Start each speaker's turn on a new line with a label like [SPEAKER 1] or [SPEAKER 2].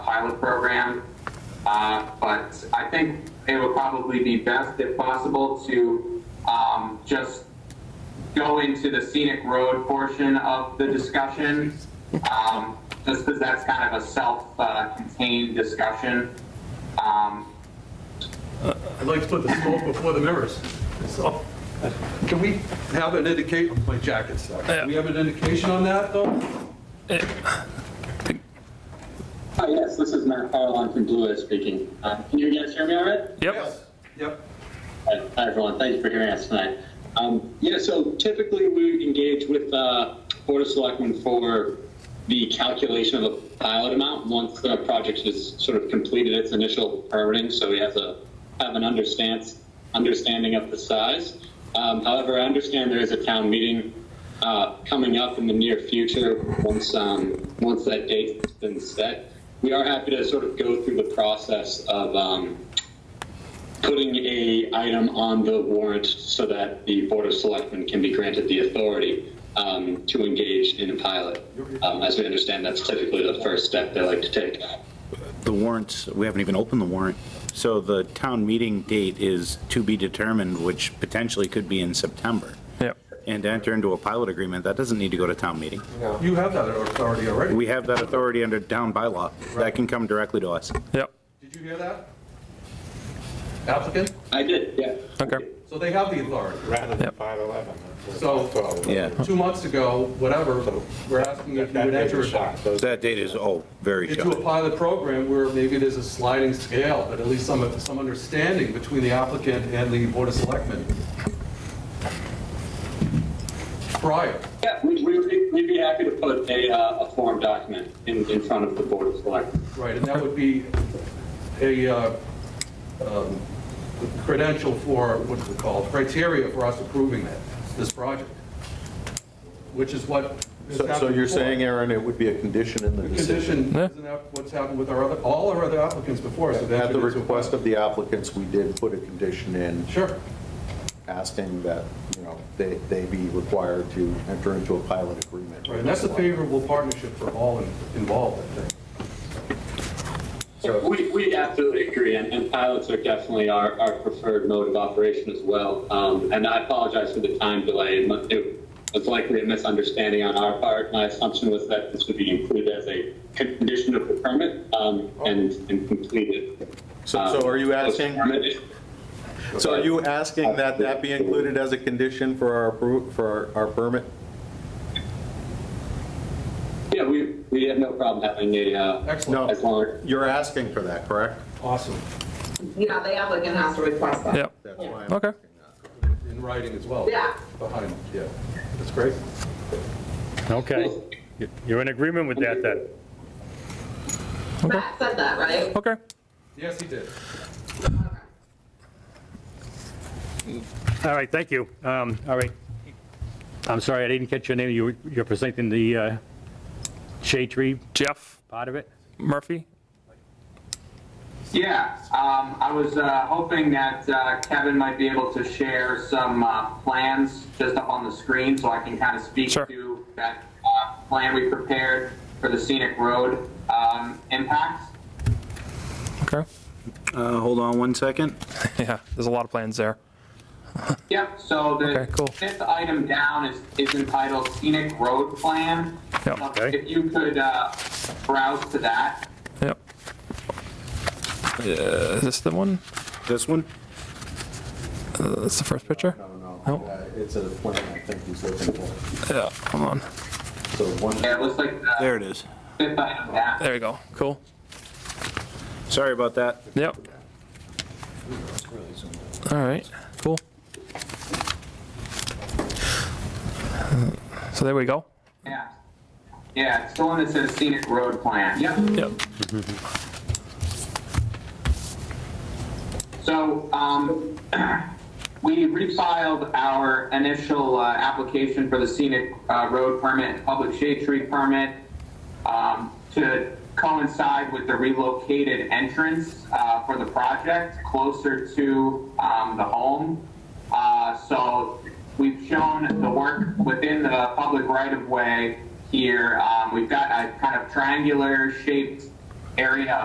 [SPEAKER 1] pilot program. Uh, But I think it would probably be best, if possible, to um, just go into the scenic road portion of the discussion, um, just because that's kind of a self-contained discussion. Um,
[SPEAKER 2] I'd like to put the smoke before the mirrors. So, can we have an indicate, my jacket's stuck. Can we have an indication on that, though?
[SPEAKER 3] Hi, Oh, yes, this is Matt Farland from Blue Edge speaking. Uh, Can you guys hear me all right?
[SPEAKER 4] Yep,
[SPEAKER 2] Yes. Yep.
[SPEAKER 3] Hi, hi, everyone. Thank you for hearing us tonight. Um, Yeah, so typically we engage with uh, Board of Selectmen for the calculation of the pilot amount once the project has sort of completed its initial permitting, so we have to have an understands, understanding of the size. Um, However, I understand there is a town meeting uh, coming up in the near future, once, um, once that date's been set. We are happy to sort of go through the process of um, putting a item on the warrant so that the Board of Selectmen can be granted the authority um, to engage in a pilot. Um, As we understand, that's typically the first step they like to take.
[SPEAKER 5] The warrants, we haven't even opened the warrant. So the town meeting date is to be determined, which potentially could be in September.
[SPEAKER 4] yep.
[SPEAKER 5] And to enter into a pilot agreement, that doesn't need to go to town meeting.
[SPEAKER 2] You have that authority already.
[SPEAKER 5] We have that authority under town bylaw. That can come directly to us.
[SPEAKER 4] Yep,
[SPEAKER 2] Did you hear that? Applicant?
[SPEAKER 3] I did, yeah.
[SPEAKER 4] okay,
[SPEAKER 2] So they have the authority.
[SPEAKER 6] rather than
[SPEAKER 4] Yep.
[SPEAKER 6] 511.
[SPEAKER 2] So-
[SPEAKER 5] Yeah.
[SPEAKER 2] Two months ago, whatever, we're asking if you
[SPEAKER 6] That
[SPEAKER 2] would
[SPEAKER 6] date
[SPEAKER 2] enter
[SPEAKER 6] is
[SPEAKER 2] it
[SPEAKER 6] shot. Those-
[SPEAKER 5] That date is, oh, very
[SPEAKER 2] into a
[SPEAKER 5] short.
[SPEAKER 2] pilot program where maybe there's a sliding scale, but at least some, some understanding between the applicant and the Board of Selectmen. Prior.
[SPEAKER 3] Yeah, we- we would be- we'd be happy to put a, uh, a form document in, in front of the Board of Selectmen.
[SPEAKER 2] Right, and that would be a uh, um, credential for, what's it called, criteria for us approving that, this project, which is what has
[SPEAKER 7] So
[SPEAKER 2] happened
[SPEAKER 7] so you're
[SPEAKER 2] before.
[SPEAKER 7] saying, Aaron, it would be a condition in the
[SPEAKER 2] The
[SPEAKER 7] decision?
[SPEAKER 2] condition, isn't that what's happened with our other, all our other applicants before? us have
[SPEAKER 7] At the
[SPEAKER 2] entered into a-
[SPEAKER 7] request of the applicants, we did put a condition in
[SPEAKER 2] Sure,
[SPEAKER 7] asking that, you know, they, they be required to enter into a pilot agreement.
[SPEAKER 2] right, and that's a favorable partnership for all in- involved, I think.
[SPEAKER 3] We, we absolutely agree, and, and pilots are definitely our, our preferred mode of operation as well. Um, and I apologize for the time delay. It mu- It was likely a misunderstanding on our part. My assumption was that this would be included as a condition of the permit, um, and, and completed.
[SPEAKER 7] Oh. So so are you
[SPEAKER 3] um,
[SPEAKER 7] asking,
[SPEAKER 3] permit.
[SPEAKER 7] so are you asking that that be included as a condition for our, appro- for our our permit?
[SPEAKER 3] Yeah, we, we have no problem having a, uh,
[SPEAKER 2] Excellent,
[SPEAKER 7] No.
[SPEAKER 3] as long,
[SPEAKER 7] You're asking for that, correct?
[SPEAKER 2] awesome,
[SPEAKER 8] Yeah, the applicant has to request that.
[SPEAKER 4] yep,
[SPEAKER 7] That's why I'm
[SPEAKER 4] Okay.
[SPEAKER 7] asking that.
[SPEAKER 2] in writing as well.
[SPEAKER 8] Yeah.
[SPEAKER 2] Behind, yeah, that's great.
[SPEAKER 9] Okay, you're in agreement with that then?
[SPEAKER 8] Matt said that, right?
[SPEAKER 4] okay.
[SPEAKER 2] Yes, he did.
[SPEAKER 8] Okay.
[SPEAKER 9] All right, thank you. Um, All right. I'm sorry, I didn't catch your name. You were- You're presenting the uh, shade tree
[SPEAKER 4] Jeff
[SPEAKER 9] part of it?
[SPEAKER 4] Murphy?
[SPEAKER 1] Yeah, um, I was, uh, hoping that, uh, Kevin might be able to share some, uh, plans just up on the screen so I can kind of speak
[SPEAKER 4] Sure.
[SPEAKER 1] to that, uh, plan we prepared for the scenic road, um, impact.
[SPEAKER 4] Okay,
[SPEAKER 5] Uh, hold on one second.
[SPEAKER 4] yeah, there's a lot of plans there.
[SPEAKER 1] Yep, so the
[SPEAKER 4] Okay, cool.
[SPEAKER 1] fifth item down is, is entitled scenic road plan.
[SPEAKER 4] Yep.
[SPEAKER 1] So
[SPEAKER 9] Okay.
[SPEAKER 1] If you could, uh, browse to that.
[SPEAKER 4] Yep. Uh, Is this the one?
[SPEAKER 5] This one?
[SPEAKER 4] Uh, That's the first picture?
[SPEAKER 7] No, no,
[SPEAKER 4] Nope.
[SPEAKER 7] no. Uh, It's a plan I think he's looking for.
[SPEAKER 4] Yeah, come on.
[SPEAKER 7] So one,
[SPEAKER 1] Yeah, it looks like
[SPEAKER 5] There
[SPEAKER 1] the
[SPEAKER 5] it is.
[SPEAKER 1] fifth item down.
[SPEAKER 4] There we go, cool,
[SPEAKER 5] Sorry about that.
[SPEAKER 4] yep. All right, cool. So there we go,
[SPEAKER 1] Yeah. Yeah, it's the one that says scenic road plan. Yep.
[SPEAKER 4] yep,
[SPEAKER 1] So um, we refiled our initial uh, application for the scenic uh, road permit, and public shade tree permit, um, to coincide with the relocated entrance uh, for the project closer to um, the home. Uh, So we've shown the work within the public right-of-way here. Um, We've got a kind of triangular shaped area